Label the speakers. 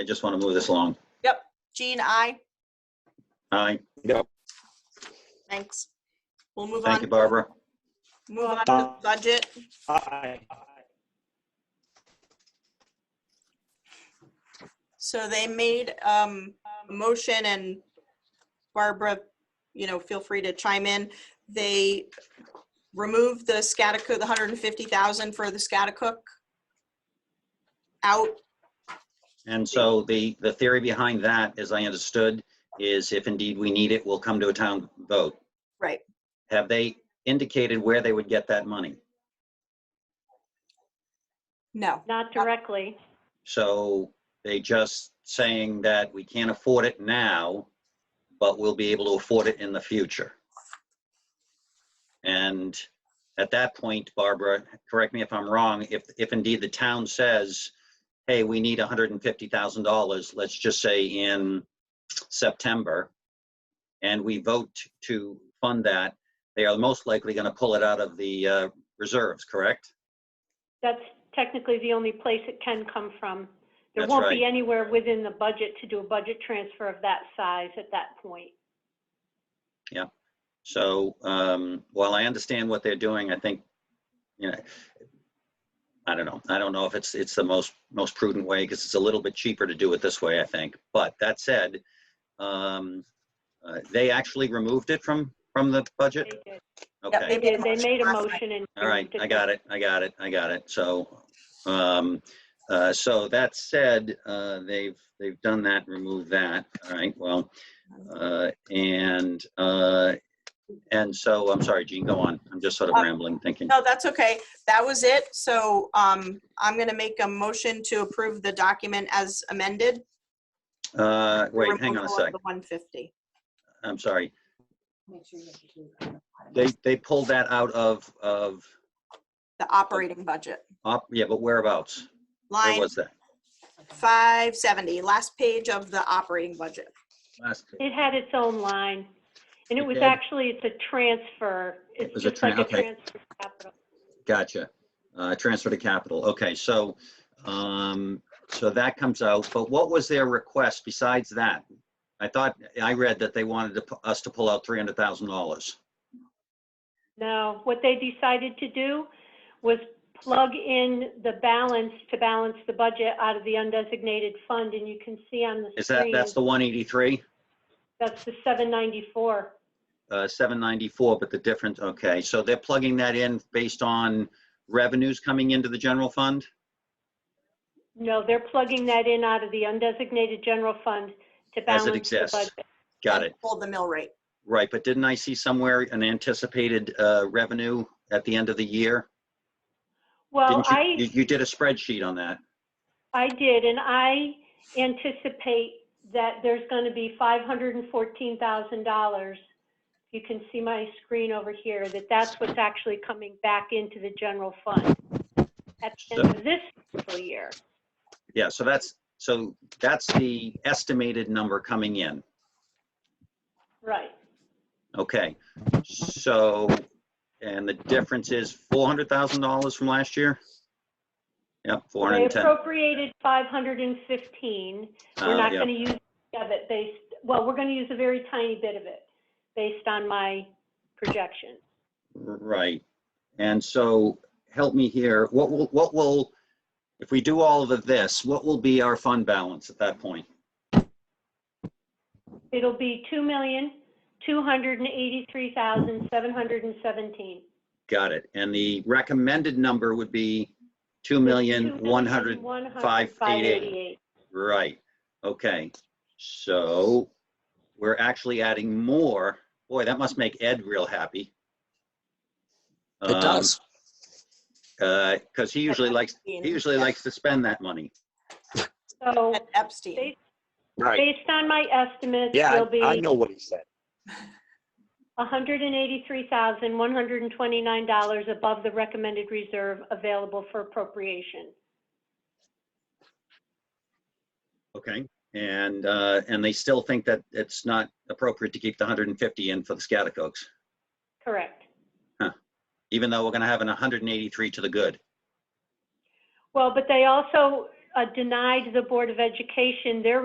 Speaker 1: I just want to move this along.
Speaker 2: Jean, I.
Speaker 1: Aye.
Speaker 2: Thanks. We'll move
Speaker 1: Thank you,
Speaker 2: on,
Speaker 1: Barbara.
Speaker 2: move on to budget.
Speaker 3: Aye.
Speaker 4: Um,
Speaker 2: So they made um, a motion and Barbara, you know, feel free to chime in. They removed the Scotticook, the hundred and fifty thousand for the Scotticook out.
Speaker 1: And so the, the theory behind that, as I understood, is if indeed we need it, we'll come to a town vote.
Speaker 2: Right.
Speaker 1: Have they indicated where they would get that money?
Speaker 2: No,
Speaker 5: Not
Speaker 1: Uh,
Speaker 5: directly.
Speaker 1: So they just saying that we can't afford it now, but we'll be able to afford it in the future. And at that point, Barbara, correct me if I'm wrong, if, if indeed the town says, hey, we need $150,000, let's just say in September, and we vote to fund that, they are most likely going to pull it out of the uh, reserves, correct?
Speaker 5: That's technically the only place it can come from. There
Speaker 1: That's
Speaker 5: won't be
Speaker 1: right.
Speaker 5: anywhere within the budget to do a budget transfer of that size at that point.
Speaker 1: So um, while I understand what they're doing, I think, you know, I don't know. I don't know if it's, it's the most, most prudent way because it's a little bit cheaper to do it this way, I think. But that said, um, uh, they actually removed it from, from the
Speaker 5: They
Speaker 1: budget?
Speaker 5: did.
Speaker 2: Yep,
Speaker 1: Okay.
Speaker 5: They did. They made a
Speaker 2: last night.
Speaker 5: motion and.
Speaker 1: All right, I got it, I got it, I got it. So, um, uh, so that said, uh, they've, they've done that, removed that, all right, well. Uh, and, uh, and so, I'm sorry, Gene, go on. I'm just sort of rambling, thinking.
Speaker 2: no, that's okay. That was it. So um, I'm going to make a motion to approve the document as amended.
Speaker 1: Uh, wait, hang on a
Speaker 2: Removal of
Speaker 1: sec.
Speaker 2: The one fifty.
Speaker 1: I'm sorry. They, they pulled that out of, of,
Speaker 2: The operating budget.
Speaker 1: op- yeah, but whereabouts? Where
Speaker 2: Line
Speaker 1: was that?
Speaker 2: 570, last page of the operating budget.
Speaker 1: Last page.
Speaker 5: It had its own line. And it
Speaker 1: It
Speaker 5: was
Speaker 1: did.
Speaker 5: actually, it's a transfer.
Speaker 1: It
Speaker 5: It's
Speaker 1: was a
Speaker 5: just like
Speaker 1: tran-
Speaker 5: a
Speaker 1: okay.
Speaker 5: transfer of capital.
Speaker 1: Gotcha. Uh, Transfer to capital. Okay, so, um, so that comes out, but what was their request besides that? I thought, I read that they wanted to pu- us to pull out $300,000.
Speaker 5: No, what they decided to do was plug in the balance to balance the budget out of the undesignated fund. And you can see on the
Speaker 1: Is that,
Speaker 5: screen,
Speaker 1: that's the 183,
Speaker 5: that's the 794.
Speaker 1: uh, 794, but the difference, okay, so they're plugging that in based on revenues coming into the general fund?
Speaker 5: No, they're plugging that in out of the undesignated general fund to
Speaker 1: As
Speaker 5: balance
Speaker 1: it
Speaker 5: the
Speaker 1: exists.
Speaker 5: budget.
Speaker 1: Got it,
Speaker 2: Hold the mill rate.
Speaker 1: right, but didn't I see somewhere an anticipated uh, revenue at the end of the year?
Speaker 5: Well,
Speaker 1: Didn't you-
Speaker 5: I,
Speaker 1: You you did a spreadsheet on that.
Speaker 5: I did, and I anticipate that there's going to be $514,000. You can see my screen over here, that that's what's actually coming back into the general fund at the end of this fiscal year.
Speaker 1: Yeah, so that's, so that's the estimated number coming in.
Speaker 5: Right.
Speaker 1: Okay, so, and the difference is $400,000 from last year? Yep,
Speaker 5: They
Speaker 1: 410.
Speaker 5: appropriated 515. We're
Speaker 4: Um,
Speaker 1: Uh,
Speaker 5: not
Speaker 1: yeah.
Speaker 5: going to use any of it based, well, we're going to use a very tiny bit of it based on my projection.
Speaker 1: Right. And so, help me here, what will, what will, if we do all of this, what will be our fund balance at that point?
Speaker 5: It'll be 2,283,717.
Speaker 1: Got it. And the recommended number would be 2,100,
Speaker 5: 2,105,588.
Speaker 1: right. Okay. So we're actually adding more. Boy, that must make Ed real happy.
Speaker 4: It does.
Speaker 1: Because uh, he usually likes, he usually likes to spend that money.
Speaker 5: So
Speaker 2: At Epstein.
Speaker 4: Right.
Speaker 5: based on my estimates,
Speaker 4: Yeah,
Speaker 5: it'll
Speaker 4: I- I
Speaker 5: be
Speaker 4: know what he said.
Speaker 5: $183,129 above the recommended reserve available for appropriation.
Speaker 1: Okay. And, uh, and they still think that it's not appropriate to keep the 150 in for the Scaticokes,
Speaker 5: Correct.
Speaker 1: even though we're going to have an 183 to the good.
Speaker 5: Well, but they also uh, denied the Board of Education their